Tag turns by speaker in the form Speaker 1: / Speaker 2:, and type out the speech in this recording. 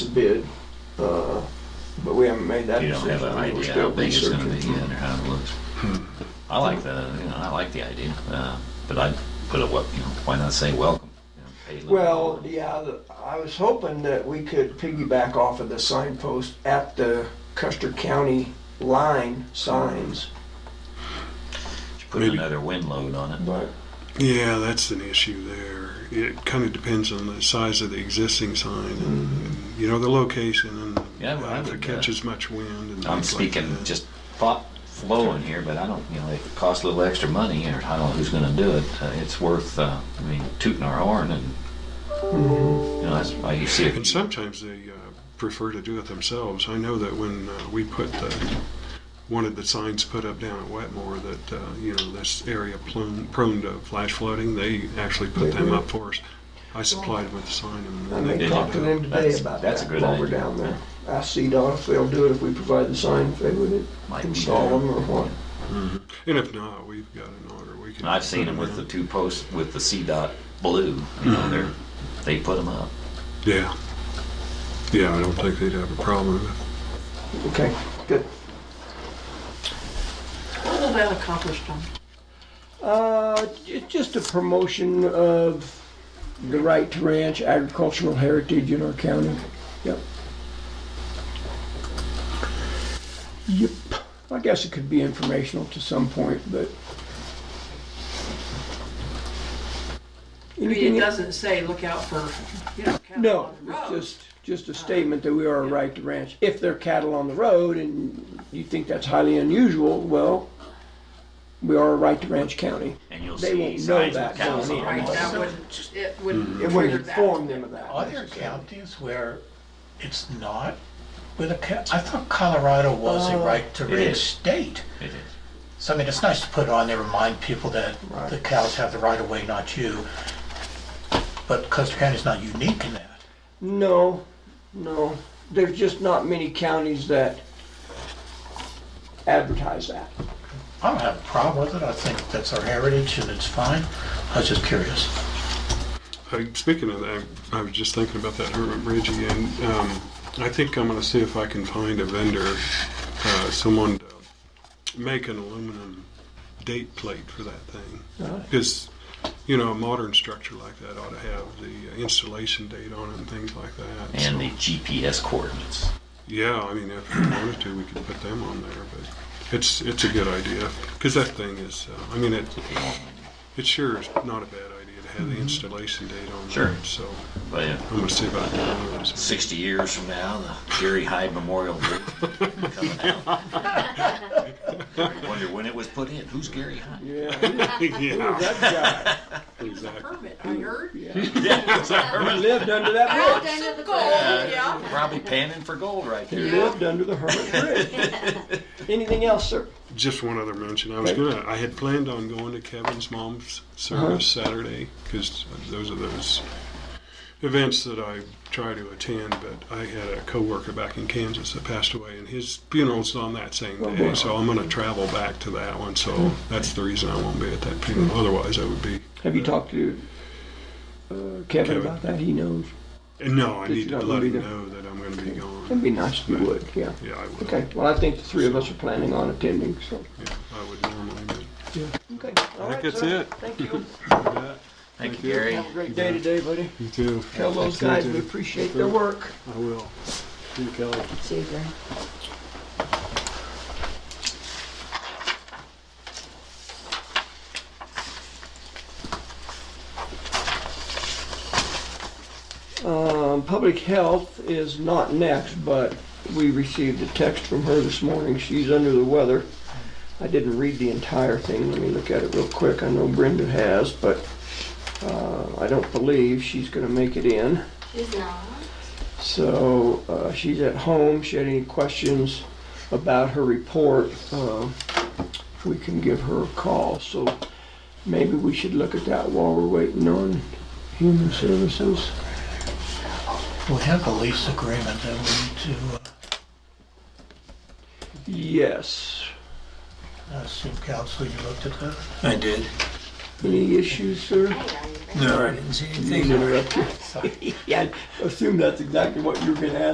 Speaker 1: bid, uh, but we haven't made that
Speaker 2: You
Speaker 1: decision.
Speaker 2: don't have an
Speaker 1: We're
Speaker 2: idea how
Speaker 1: still
Speaker 2: big it's gonna be
Speaker 1: researching.
Speaker 2: yet or how it Hmm. looks. I like the, you know, I like the idea, uh, but I'd put a, wel- you know, why not say welcome? You know, pay a little
Speaker 1: Well,
Speaker 2: more.
Speaker 1: yeah, the- I was hoping that we could piggyback off of the signpost at the Custer County line signs,
Speaker 2: Put
Speaker 3: maybe-
Speaker 2: another wind load on it.
Speaker 1: but
Speaker 3: Yeah, that's an issue there. It kind of depends on the size of the existing sign and, and you know, the location and
Speaker 2: Mm-hmm. Yeah, well, I
Speaker 3: if it
Speaker 2: would, uh,
Speaker 3: catches much wind and
Speaker 2: I'm
Speaker 3: things like
Speaker 2: speaking
Speaker 3: that.
Speaker 2: just thought flowing here, but I don't, you know, it costs a little extra money or I don't know who's gonna do it. Uh, It's worth, uh, I mean, tooting our horn and, you know, that's why you see
Speaker 3: And
Speaker 2: it.
Speaker 3: sometimes they uh, prefer to do it themselves. I know that when uh, we put the, wanted the signs put up down at Wetmore that, uh, you know, this area plume, prone to flash flooding, they actually put them up for us. I supplied with the
Speaker 1: I
Speaker 3: sign and they
Speaker 1: may
Speaker 2: Did
Speaker 3: did
Speaker 1: talk to
Speaker 3: it.
Speaker 1: them today
Speaker 2: That's-
Speaker 1: about
Speaker 2: that's
Speaker 1: that
Speaker 2: a good
Speaker 1: while we're
Speaker 2: idea.
Speaker 1: down there. Ask CDOT if they'll do it if we provide the sign, if they would
Speaker 2: Might be
Speaker 1: install
Speaker 2: better.
Speaker 1: them or what.
Speaker 3: And if not, we've got an order. We can.
Speaker 2: And I've seen
Speaker 3: put
Speaker 2: them with the
Speaker 3: in.
Speaker 2: two posts with the C dot blue, you know, they're, they put them up.
Speaker 3: Yeah. Yeah, I don't think they'd have a problem with it.
Speaker 1: Okay, good.
Speaker 4: What will that accomplish, John?
Speaker 1: Uh, it's just a promotion of the right to ranch agricultural heritage in our county. Yep. Yep. I guess it could be informational to some point, but.
Speaker 4: I mean,
Speaker 1: Anything-
Speaker 4: it doesn't say, look out for, you know, cattle
Speaker 1: No,
Speaker 4: on the
Speaker 1: it's
Speaker 4: road.
Speaker 1: just, just a statement that we are a right to ranch. If there are cattle on the road and you think that's highly unusual, well, we are a right to ranch county.
Speaker 2: And you'll
Speaker 1: They
Speaker 2: see
Speaker 1: won't know
Speaker 2: signs
Speaker 1: that
Speaker 2: of cows
Speaker 1: going
Speaker 2: on
Speaker 1: in.
Speaker 4: Right, that
Speaker 5: Mm-hmm.
Speaker 2: them.
Speaker 4: would, it would
Speaker 1: It would
Speaker 4: trigger that.
Speaker 1: inform them of that.
Speaker 6: Are there counties where it's not with a ca- I thought Colorado was a right to
Speaker 2: It
Speaker 6: range
Speaker 2: is.
Speaker 6: state.
Speaker 2: It is.
Speaker 6: So I mean, it's nice to put on there, remind people that
Speaker 1: Right.
Speaker 6: the cows have the right of way, not you. But Custer County's not unique in that.
Speaker 1: No, no. There's just not many counties that advertise that.
Speaker 6: I don't have a problem with it. I think that's our heritage and it's fine. I was just curious.
Speaker 3: I- Speaking of that, I was just thinking about that Hermit Bridge again. Um, I think I'm gonna see if I can find a vendor, uh, someone to make an aluminum date plate for that thing. Because, you know, a modern structure like that ought to have the installation date on it and things like that.
Speaker 2: And the
Speaker 3: so-
Speaker 2: GPS coordinates.
Speaker 3: Yeah, I mean, if we wanted to, we could put them on there, but it's, it's a good idea. Because that thing is, uh, I mean, it, It sure is not a bad idea to have the installation date on
Speaker 2: Sure.
Speaker 3: there, so
Speaker 2: But yeah,
Speaker 3: I'm gonna see about that.
Speaker 2: 60 years from now, the Gary Hyde Memorial Bridge coming out. I wonder when it was put in. Who's Gary Hyde?
Speaker 1: Yeah,
Speaker 3: Yeah,
Speaker 1: that guy.
Speaker 3: exactly.
Speaker 4: Permit, I
Speaker 1: Mm-hmm.
Speaker 4: heard.
Speaker 1: He lived under that
Speaker 5: Out
Speaker 1: bridge.
Speaker 5: under the
Speaker 4: Gold,
Speaker 5: bridge.
Speaker 4: yeah.
Speaker 2: Probably panning for gold right
Speaker 1: He
Speaker 2: there.
Speaker 1: lived under the Hermit Bridge. Anything else, sir?
Speaker 3: Just one other mention, I was gonna, I had planned on going to Kevin's mom's service
Speaker 1: Uh-huh.
Speaker 3: Saturday, because those are those events that I try to attend, but I had a coworker back in Kansas that passed away, and his funeral's on that same
Speaker 1: Oh,
Speaker 3: day, so I'm gonna travel back to that one,
Speaker 1: Uh-huh.
Speaker 3: so that's the reason I won't be at that funeral, otherwise I would be.
Speaker 1: Have you talked to uh, Kevin
Speaker 3: Kevin.
Speaker 1: about that? He knows.
Speaker 3: And no, I
Speaker 1: Just
Speaker 3: need to
Speaker 1: not
Speaker 3: let
Speaker 1: gonna
Speaker 3: him
Speaker 1: be there.
Speaker 3: know that I'm gonna be gone.
Speaker 1: It'd be nice if you would, yeah.
Speaker 3: Yeah, I would.
Speaker 1: Okay, well, I think the three of us are planning on attending, so.
Speaker 3: Yeah, I would normally, but
Speaker 1: Okay.
Speaker 3: I think that's it.
Speaker 1: Thank you.
Speaker 2: Thank you,
Speaker 3: you.
Speaker 2: Gary.
Speaker 1: Have a great day today, buddy.
Speaker 3: You too.
Speaker 1: Tell those guys we appreciate their work.
Speaker 3: I will. You, Kelly.
Speaker 5: Super.
Speaker 1: Um, public health is not next, but we received a text from her this morning. She's under the weather. I didn't read the entire thing. Let me look at it real quick. I know Brenda has, but uh, I don't believe she's going to make it in.
Speaker 5: She's not.
Speaker 1: So uh, she's at home. She had any questions about her report? Uh, we can give her a call. So maybe we should look at that while we're waiting on human services.
Speaker 6: We have a lease agreement that we need to, uh,
Speaker 1: Yes.
Speaker 6: I assume council, you looked at that?
Speaker 7: I did.
Speaker 1: Any issues, sir?
Speaker 5: I don't even-
Speaker 7: No, I didn't see anything.
Speaker 1: Interrupt you. Yeah, I assume that's exactly what you were gonna ask.